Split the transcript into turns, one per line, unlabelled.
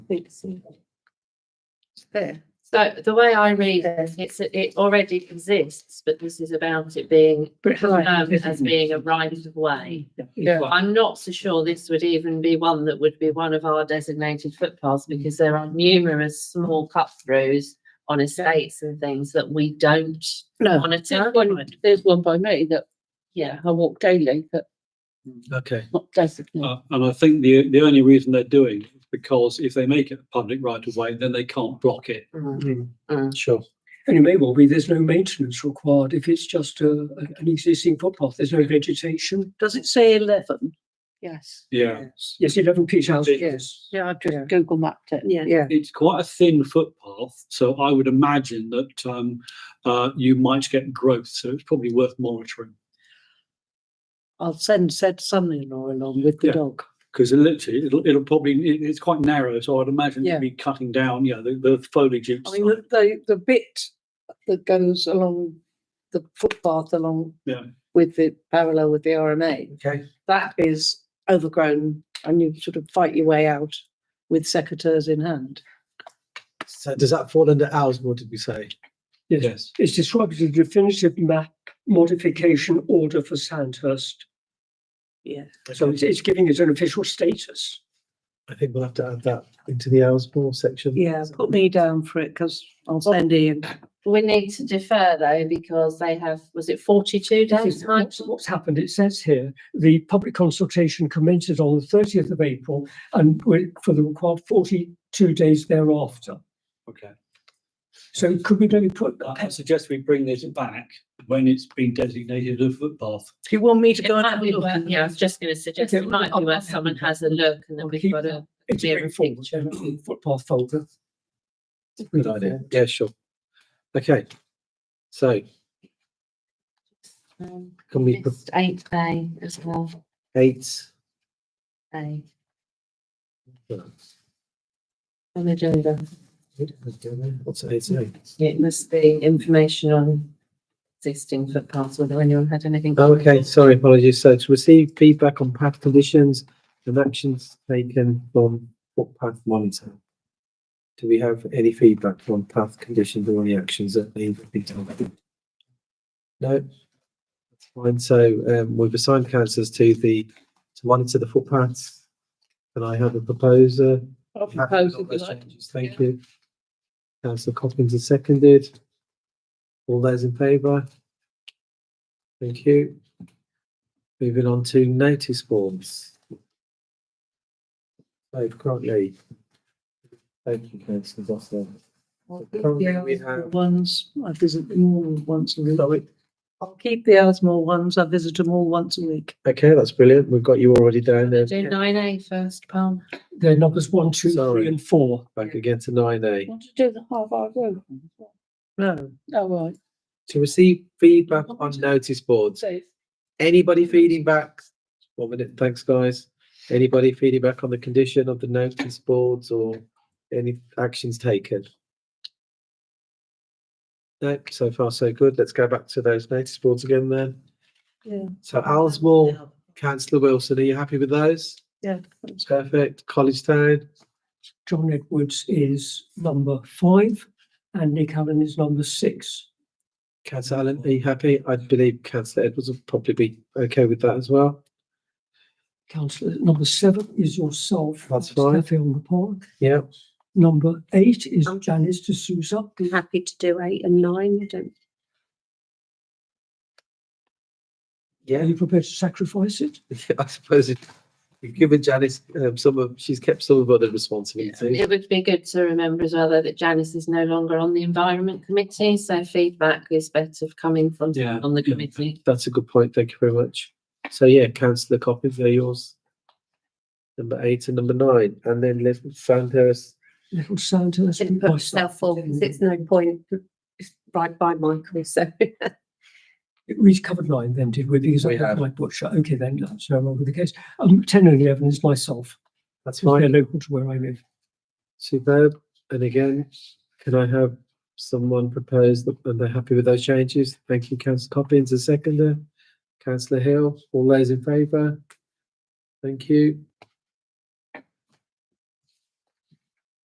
fixing.
There.
So the way I read it,
Yes.
it's, it already exists, but this is about it being, um, as being a right of way.
Yeah.
I'm not so sure this would even be one that would be one of our designated footpaths because there are numerous small cut throughs on estates and things that we don't
No,
monitor.
there's one, there's one by me that
Yeah,
I walk daily, but
Okay,
not designated.
uh, and I think the, the only reason they're doing it is because if they make it a public right of way, then they can't block it.
Mm,
Sure.
And it may well be there's no maintenance required if it's just a, a- an existing footpath. There's no vegetation.
Does it say eleven? Yes.
Yeah.
Yes, eleven Peach House.
Yes, yeah, I just Google mapped it.
Yeah.
Yeah.
It's quite a thin footpath, so I would imagine that, um, uh, you might get growth, so it's probably worth monitoring.
I'll send said son-in-law along with the
Yeah.
dog.
Because literally, it'll, it'll probably, it, it's quite narrow, so I'd imagine
Yeah.
it'd be cutting down, you know, the, the foliage.
I mean, the, the, the bit that goes along the footpath along
Yeah.
with the parallel with the RMA,
Okay.
that is overgrown and you sort of fight your way out with secateurs in hand.
So does that fall under ours? What did we say?
Yes.
Yes,
It's described as a definitive map modification order for Sandhurst.
Yeah.
So it's, it's giving it an official status.
I think we'll have to add that into the ours ball section.
Yeah, put me down for it because I'll send Ian.
We need to defer though, because they have, was it forty-two
This
days,
is
Mike?
what's- What's happened, it says here, the public consultation commences on the thirtieth of April and we- for the required forty-two days thereafter.
okay.
So could we maybe put
I I suggest we bring this back when it's been designated a footpath.
Do you want me to
It
go and
might
have a
be
look?
worth- Yeah, I was just gonna suggest
Okay,
it might be
I'll-
where someone has a look and then
I'll
we've
keep
got
that.
a
It's
Yeah,
a forward,
picture.
um, footpath folder.
Good idea. Yeah, sure. Okay. So
um,
can we put
missed eight A as well,
eight?
A,
well,
on the agenda.
What's eight? sorry?
It must be information on existing footpaths, whether anyone had anything.
Oh, Okay, sorry, apologies. So to receive feedback on path conditions and actions taken from footpath monitor. Do we have any feedback on path conditions or any actions that need to be taken? No? That's fine. So um, we've assigned councillors to the, to monitor the footpaths. Can I have a proposer?
I'll
Happy with
propose
all
if you
those
like.
changes. Thank you. Councillor Coppins has seconded. All those in favour? Thank you. Moving on to notice forms. So currently. Thank you, councillor Gosnell.
I'll
the
keep
current
the
we
Asmore
have-
Ones, I visit them all once a week. I'll keep the Asmore ones, I visit them all once a week.
Okay, that's brilliant. We've got you already down there.
Do nine A first, Palm.
They're numbers one, two,
Sorry.
three and four.
Back again to nine A.
Want to do the half hour road? No. Oh, right.
To receive feedback on notice boards. Anybody feeding back? One minute, thanks, guys. Anybody feeding back on the condition of the notice boards or any actions taken? No, so far so good. Let's go back to those notice boards again then.
Yeah.
So Alsmore, councillor Wilson, are you happy with those?
Yeah.
Perfect. College Town,
John Edwards is number five and Nick Allen is number six.
councillor Allen, are you happy? I believe councillor Edwards will probably be okay with that as well.
Councillor, number seven is yourself.
That's
Steffi
fine.
on the park.
Yeah.
Number eight is
Um,
Janice de Souza.
Happy to do eight and nine, I don't.
Are
Yeah.
you prepared to sacrifice it?
I suppose it, you've given Janice um, some of, she's kept some of other responsibilities.
It would be good to remember as well though that Janice is no longer on the Environment Committee, so feedback is better coming from
Yeah.
on the
Yeah.
committee.
That's a good point. Thank you very much. So yeah, councillor Coppins, they're yours. Number eight and number nine, and then let's find her.
Little Sandhurst.
Didn't put myself forward, 'cause it's no point, it's right by Michael, so.
It reached covered line then, did we? Because I
We
have
have.
my butcher. Okay, then that's no longer the case. Um, ten and eleven is myself.
That's
They're
fine.
local to where I live.
Superb. And again, can I have someone propose that, and they're happy with those changes? Thank you, councillor Coppins, a seconder. Councillor Hill, all those in favour? Thank you.